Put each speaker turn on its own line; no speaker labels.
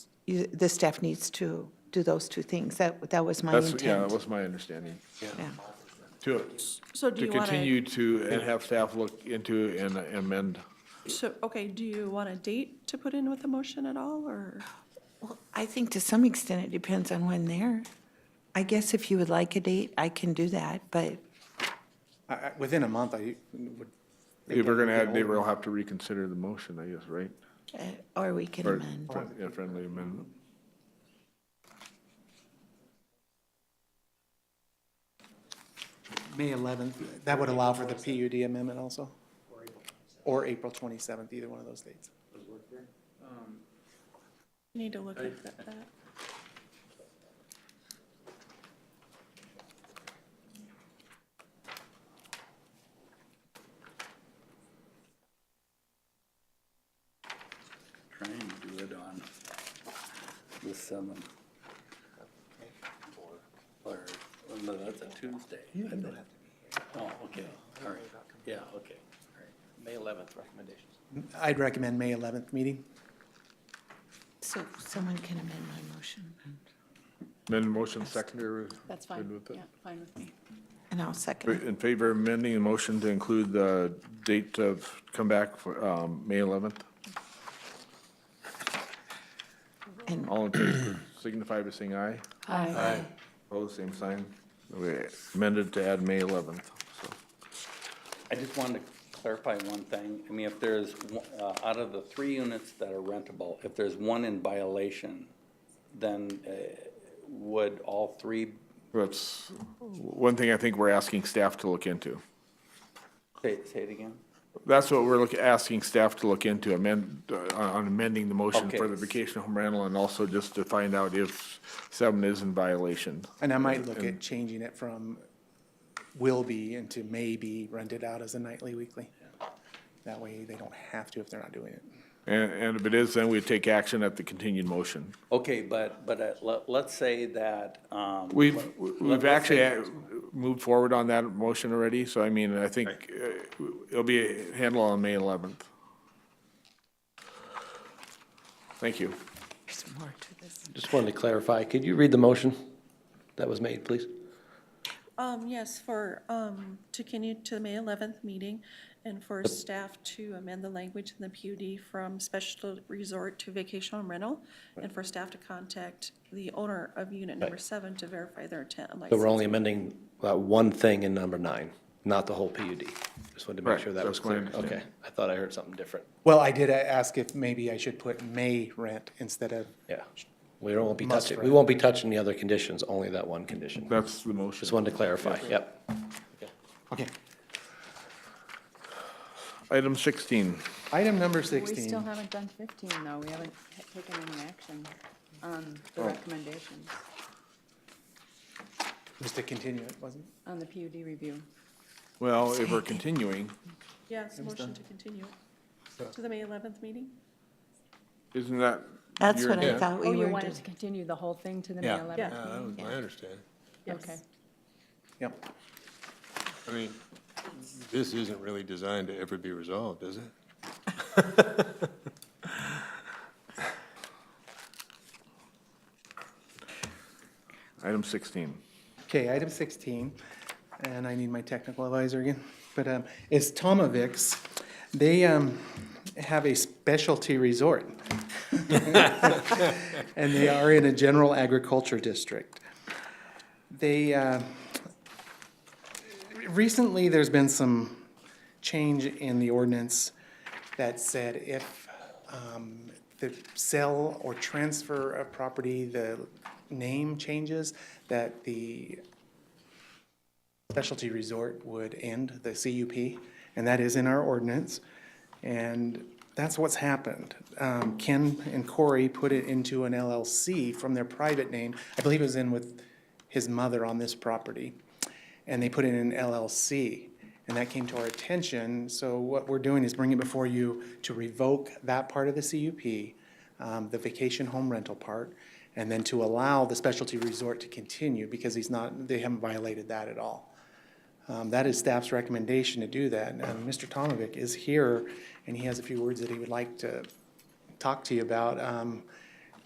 you, the staff needs to do those two things. That, that was my
That's, yeah, that
intent.
was my understanding.
Yeah.
To,
So do
to
you want
continue
to,
to, and have staff look into and amend.
so, okay, do you want a date to put in with the motion at all, or?
Well, I think to some extent it depends on when they're. I guess if you would like a date, I can do that, but
I, I, within a month, I would.
If we're gonna add, they
Or
will have to reconsider the motion, I guess, right?
Uh, Or we can
Or,
amend.
fri- yeah, friendly amendment.
May eleventh, that would allow for the PUD amendment also? Or April twenty-seventh, either one of those dates.
Need to look at that. that.
Trying to do it on the seventh. Or, oh, no, that's a Tuesday. I think. Oh, okay, all right, yeah, okay, all right. May eleventh recommendations.
I'd recommend May eleventh meeting.
So someone can amend my motion,
Amend motion seconder.
That's
Good
fine,
with it?
yeah, fine with me.
and I'll second. it.
In favor of amending the motion to include the date of comeback for, um, May eleventh?
And
All in favor, signify by saying aye.
Aye.
Opposed, same sign. We amended to add May eleventh, so.
I just wanted to clarify one thing. I mean, if there's, one- uh, out of the three units that are rentable, if there's one in violation, then uh, would all three,
That's one thing I think we're asking staff to look into.
say say it again?
That's what we're look, asking staff to look into, amend, uh, on amending the motion for
Okay.
the vacation home rental and also just to find out if seven is in violation.
And I might look at changing it from will be into may be rented out as a nightly, weekly. That way they don't have to if they're not doing it.
And, and if it is, then we take action at the continued motion.
Okay, but, but uh, let- let's say that. um,
We've,
let-
we've
let's say-
actually uh, moved forward on that motion already, so I mean, I think uh, it'll be handled on May eleventh. Thank you.
there's more to this.
Just wanted to clarify, could you read the motion that was made, please?
Um, yes, for, um, to continue to the May eleventh meeting and for staff to amend the language in the PUD from special resort to vacation home rental and for staff to contact the owner of unit number seven to verify their intent and
So we're
license.
only amending uh, one thing in number nine, not the whole PUD. Just wanted to
Right,
make sure that was
that's my
clear. Okay,
understanding.
I thought I heard something different.
Well, I did ask if maybe I should put may rent instead of,
Yeah. We won't be
Must
touching, we
rent.
won't be touching the other conditions, only that one condition.
That's the motion.
Just wanted to clarify, yep.
okay.
Item sixteen.
Item number
We still
sixteen,
haven't done 15, though. We haven't ha- taken any action on the recommendations,
was to continue it, wasn't it?
on the PUD review.
Well, if we're continuing,
Yes, motion to continue it to the May eleventh meeting?
isn't that?
That's
your
what I
intent?
thought we
Oh,
were
you
doing.
wanted to continue the whole thing to the May
Yeah.
11th?
Yeah.
Yeah, that was my understanding.
Okay.
Yep.
I mean, this isn't really designed to ever be resolved, is it?
Item sixteen.
Okay, item 16, and I need my technical advisor again, but um, is Tomovic's. They um, have a specialty resort. And they are in a general agriculture district. They, uh, recently, there's been some change in the ordinance that said if um, the sell or transfer of property, the name changes, that the specialty resort would end, the CUP, and that is in our ordinance. And that's what's happened. Um, Ken and Corey put it into an LLC from their private name. I believe it was in with his mother on this property. And they put it in an LLC. And that came to our attention. So what we're doing is bringing it before you to revoke that part of the CUP, um, the vacation home rental part, and then to allow the specialty resort to continue because he's not, they haven't violated that at all. Um, That is staff's recommendation to do that. And um, Mr. Tomovic is here, and he has a few words that he would like to talk to you about. Um,